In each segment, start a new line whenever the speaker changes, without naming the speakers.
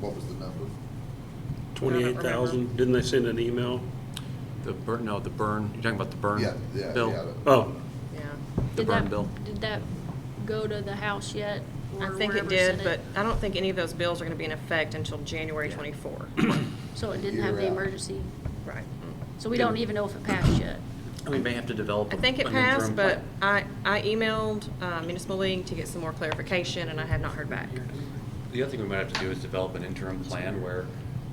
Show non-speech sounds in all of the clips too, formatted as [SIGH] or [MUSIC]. What was the number?
Twenty-eight thousand, didn't they send an email?
The burn, no, the burn, you're talking about the burn?
Yeah, yeah,
bill?
yeah.
Oh,
Yeah,
The
Did
burn
that-
bill.
Did that go to the House yet?
I
or
think it
wherever
did,
sent
but I don't think any of those bills are gonna be in effect until January [CLEARS THROAT] twenty-four.
So it didn't have the
Year out.
emergency,
Right.
so we don't even know if it passed yet.
We may have to develop.
I think it
an interim
passed, but
plan.
I, I emailed uh, Municipal League to get some more clarification, and I have not heard back.
The other thing we might have to do is develop an interim plan where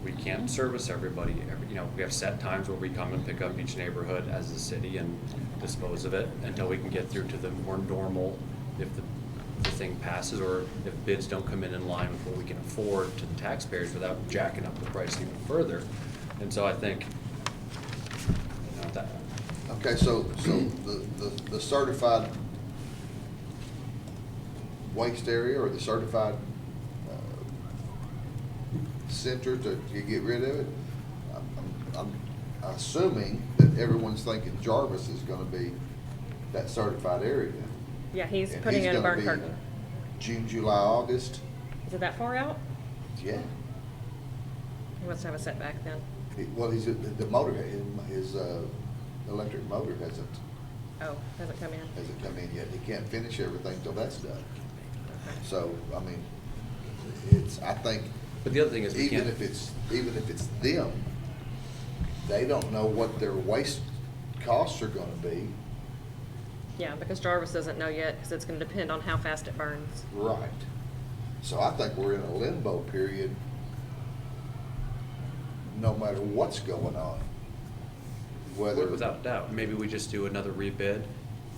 we can't service everybody. Every- You know, we have set times where we come and pick up each neighborhood as a city and dispose of it until we can get through to the more normal, if the, the thing passes or if bids don't come in in line with what we can afford to the taxpayers without jacking up the price even further. And so I think, you know, that,
Okay, so, so the, the- the certified waste area or the certified uh, center to, to get rid of it? I'm- I'm I'm assuming that everyone's thinking Jarvis is gonna be that certified area.
Yeah, he's
And
putting in a
gonna
burn
be
curtain.
June, July, August,
Is it that far out?
yeah.
He must have a setback then.
He- Well, he's, the the motor, his, his uh, electric motor hasn't,
Oh, hasn't come in.
hasn't come in yet. He can't finish everything till that's done. So, I mean, it's, I think,
but the other thing is we can't.
even if it's, even if it's them, they don't know what their waste costs are gonna be.
Yeah, because Jarvis doesn't know yet, because it's gonna depend on how fast it burns.
Right. So I think we're in a limbo period, no matter what's going on. Whether.
Without doubt, maybe we just do another rebid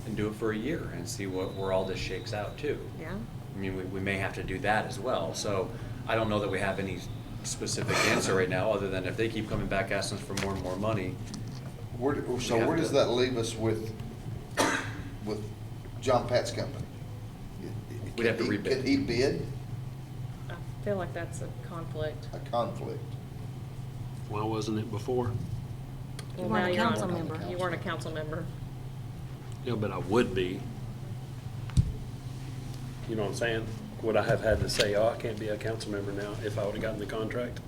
and do it for a year and see what, where all this shakes out too.
Yeah?
I mean, we, we may have to do that as well, so I don't know that we have any specific answer right now, other than if they keep coming back asking us for more and more money.
Where, do- so
We have
where does
to-
that leave us with, with John Pat's company?
We'd have to
Can he-
rebid.
Can he bid
I feel like that's a conflict.
a conflict?
why wasn't it before?
Well,
weren't
now
a
you're on-
council
member.
You weren't a council member.
Yeah, but I would be. You know what I'm saying? Would I have had to say, oh, I can't be a council member now if I would've gotten the contract?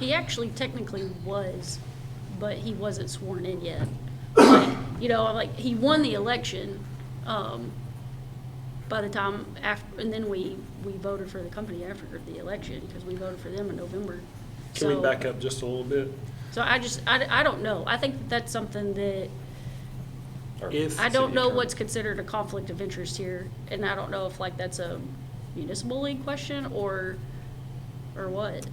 He actually technically was, but he wasn't sworn in yet. Like, You know, like, he won the election, um, by the time after, and then we, we voted for the company after the election, because we voted for them in November.
Can we
So-
back up just a little bit?
So I just, I, I don't know. I think that that's something that
or
If-
I don't
city
know
attorney.
what's considered a conflict of interest here, and I don't know if like that's a municipal league question or, or what.
It-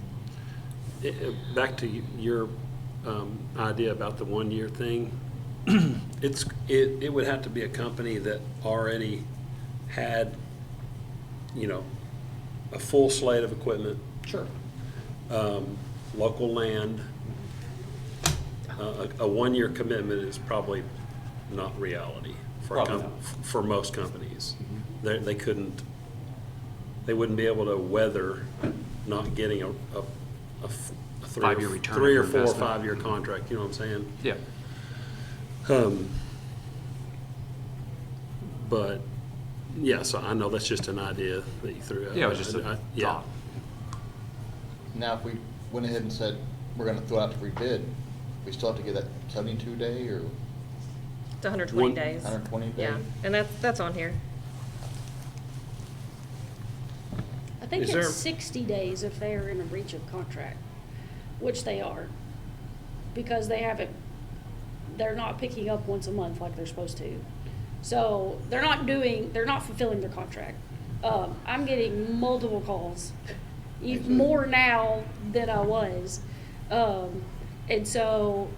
it- Back to y- your um, idea about the one-year thing, it's, it, it would have to be a company that already had, you know, a full slate of equipment. Sure. Local land. Uh, A, a one-year commitment is probably not reality for, a
Probably
com-
not.
for most companies.
Mm-hmm.
They, they couldn't they wouldn't be able to weather not getting a, a, a f- a three. or-
Five-year return on
Three or
your
four, or
investment. Mm-hmm.
five-year contract, you know what I'm saying?
Yeah,
Um, But, yeah, so I know that's just an idea that you threw out.
yeah, it was just
I- I-
a
yeah.
thought.
Now, if we went ahead and said, we're gonna throw out to rebid, we still have to get that seventy-two day or
It's hundred twenty
One-
days.
hundred and twenty day?
Yeah, and that's, that's on here.
I think
Is there-
it's sixty days if they are in a breach of contract, which they are, because they haven't, they're not picking up once a month like they're supposed to. So they're not doing, they're not fulfilling their contract. Um, I'm getting multiple calls, e-
Thank you.
more now than I was. Um, and so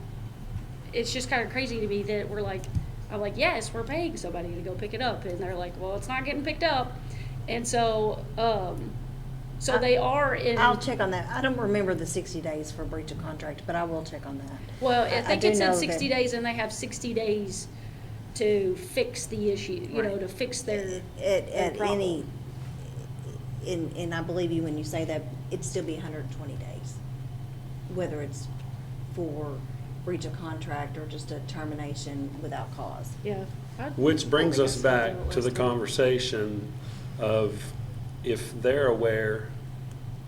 it's just kind of crazy to me that we're like, I'm like, yes, we're paying somebody to go pick it up, and they're like, well, it's not getting picked up, and so, um, so they are in.
I'll check on that. I don't remember the sixty days for breach of contract, but I will check on that.
Well,
I-
I
I
think
do
it's
know
in
that-
sixty days, and they have sixty days to fix the issue, you know,
Right.
to fix their.
At,
their
at any,
problem.
and, and I believe you when you say that, it'd still be hundred and twenty days. Whether it's for breach of contract or just a termination without cause.
Yeah. I-
Which brings
I think
us
I said that
back to the
last time.
conversation of if they're aware